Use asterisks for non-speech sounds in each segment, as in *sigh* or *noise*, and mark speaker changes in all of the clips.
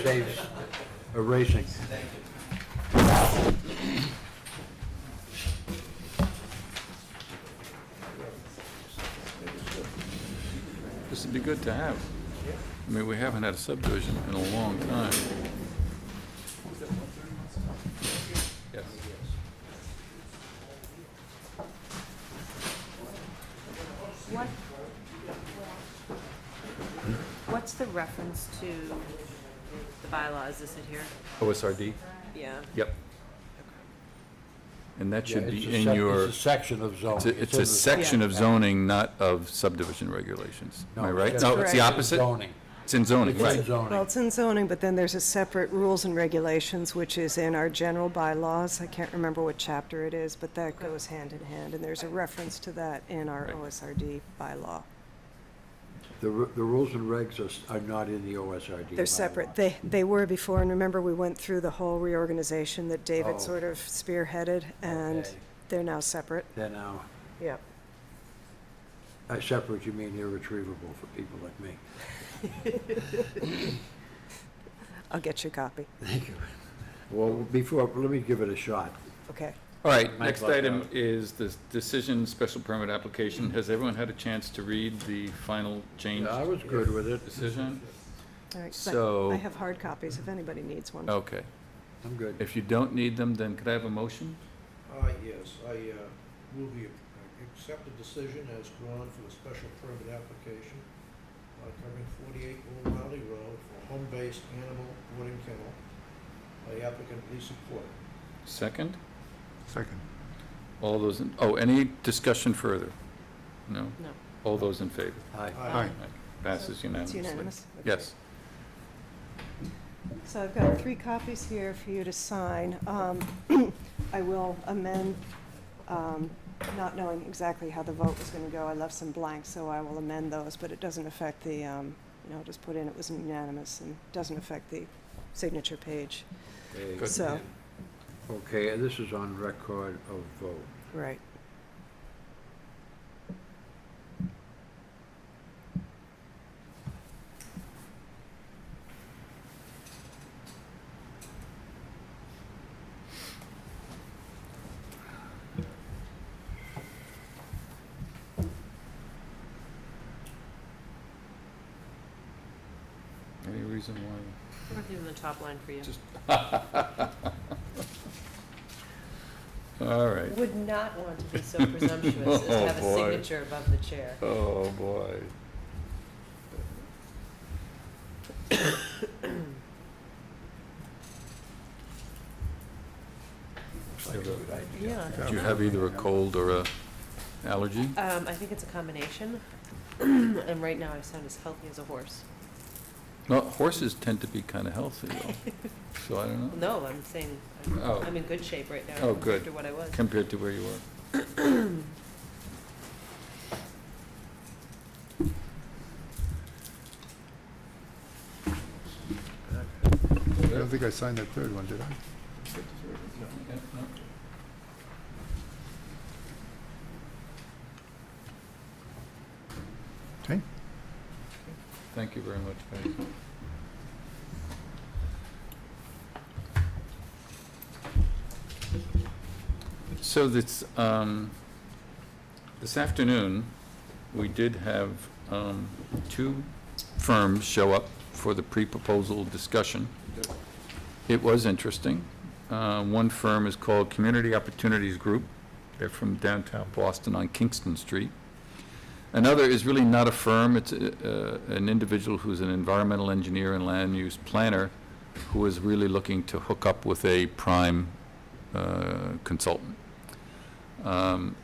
Speaker 1: saves erasing.
Speaker 2: This would be good to have. I mean, we haven't had a subdivision in a long time. Yes.
Speaker 3: What, what's the reference to the bylaws, is it here?
Speaker 2: OSRD?
Speaker 3: Yeah.
Speaker 2: Yep. And that should
Speaker 1: Yeah,
Speaker 2: be
Speaker 1: it's a
Speaker 2: in
Speaker 1: sec-
Speaker 2: your,
Speaker 1: It's a section of
Speaker 2: it's
Speaker 1: zoning.
Speaker 2: a- it's
Speaker 1: in
Speaker 2: a
Speaker 1: the-
Speaker 2: section of
Speaker 3: Yeah.
Speaker 2: zoning, not of subdivision regulations. Am I
Speaker 1: No,
Speaker 2: right?
Speaker 1: it's
Speaker 2: No,
Speaker 1: just-
Speaker 2: it's the opposite?
Speaker 1: Zoning.
Speaker 2: It's in zoning,
Speaker 1: It's in
Speaker 2: right.
Speaker 4: Well,
Speaker 1: zoning.
Speaker 4: it's in zoning, but then there's a separate rules and regulations, which is in our general bylaws. I can't remember what chapter it is, but that goes hand in hand, and there's a reference to that in our
Speaker 2: Right.
Speaker 4: OSRD bylaw.
Speaker 1: The, ru- the rules and regs are, s- are not in the OSRD.
Speaker 4: They're
Speaker 1: bylaw.
Speaker 4: separate. They, they were before, and remember, we went through the whole reorganization that
Speaker 1: Oh.
Speaker 4: David sort of spearheaded, and
Speaker 1: Okay.
Speaker 4: they're now separate.
Speaker 1: They're now,
Speaker 4: Yep.
Speaker 1: uh, separate, you mean irretrievable for people like me. *laughs*
Speaker 4: I'll get you a copy.
Speaker 1: Thank you. Well, before, let me give it a shot.
Speaker 4: Okay.
Speaker 2: All right,
Speaker 1: Might
Speaker 2: next
Speaker 1: block
Speaker 2: item
Speaker 1: out.
Speaker 2: is the decision, special permit application. Has everyone had a chance to read the final change
Speaker 1: Yeah, I was good with it.
Speaker 2: decision?
Speaker 4: All right. But
Speaker 2: So- Oh,
Speaker 4: I have hard copies if anybody needs one.
Speaker 2: Okay.
Speaker 1: I'm good.
Speaker 2: If you don't need them, then could I have a motion?
Speaker 5: Uh, yes, I, uh, will be, I accept the decision as drawn for the special permit application uh, covering forty-eight Old Valley Road for a home-based animal boarding kennel by applicant Lisa Port.
Speaker 2: Second?
Speaker 6: Second.
Speaker 2: All those, in oh, any discussion further? No?
Speaker 3: No.
Speaker 2: All those in favor?
Speaker 1: Aye.
Speaker 6: Aye.
Speaker 2: Passes
Speaker 4: It's
Speaker 2: unanimously.
Speaker 4: unanimous? Okay.
Speaker 2: Yes.
Speaker 4: So I've got three copies here for you to sign. Um, *clears throat* I will amend, um, not knowing exactly how the vote was going to go, I left some blanks, so I will amend those, but it doesn't affect the, um, you know, just put in it was unanimous and doesn't affect the signature page.
Speaker 1: Okay.
Speaker 2: Good.
Speaker 4: So,
Speaker 1: Okay, and this is on record of vote.
Speaker 4: right.
Speaker 2: Any reason why?
Speaker 3: Even the top line for you.
Speaker 2: Just- All right.
Speaker 3: Would not want to be so
Speaker 5: *laughs*
Speaker 3: presumptuous as to have
Speaker 2: Oh,
Speaker 3: a
Speaker 2: boy.
Speaker 3: signature above the chair.
Speaker 2: Oh, boy.
Speaker 3: Yeah.
Speaker 2: Do you have either a cold or a allergy?
Speaker 3: Um, I think it's a combination, *clears throat* and right now I sound as healthy as a horse.
Speaker 2: No, horses tend to be kind of healthy,
Speaker 4: *laughs*
Speaker 2: though, so I don't know,
Speaker 3: No, I'm saying, I'm-
Speaker 2: Oh.
Speaker 3: I'm in good shape right now.
Speaker 2: Oh, good.
Speaker 3: After what I was.
Speaker 2: compared to where you were.
Speaker 6: I don't think I signed that third one, did I? Okay.
Speaker 2: Thank you very much, Patty. So this, um, this afternoon, we did have, um, two firms show up for the pre-proposal discussion. It was interesting. Uh, one firm is called Community Opportunities Group. They're from downtown Boston on Kingston Street. Another is really not a firm, it's uh, an individual who's an environmental engineer and land use planner who is really looking to hook up with a prime uh, consultant. Um,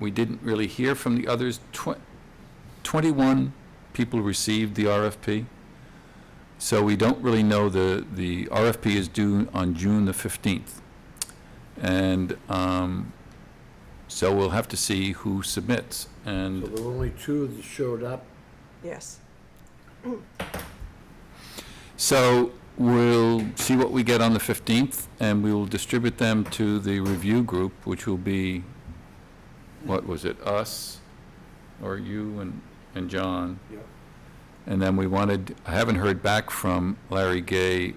Speaker 2: We didn't really hear from the others. Tw- 21 people received the RFP, so we don't really know the, the RFP is due on June the 15th. And um, so we'll have to see who submits,
Speaker 1: So
Speaker 2: and
Speaker 1: there were only two that showed up.
Speaker 4: Yes.
Speaker 2: So we'll see what we get on the 15th, and we will distribute them to the review group, which will be, what was it, us, or you and, and John?
Speaker 5: Yep.
Speaker 2: And then we wanted, I haven't heard back from Larry Gay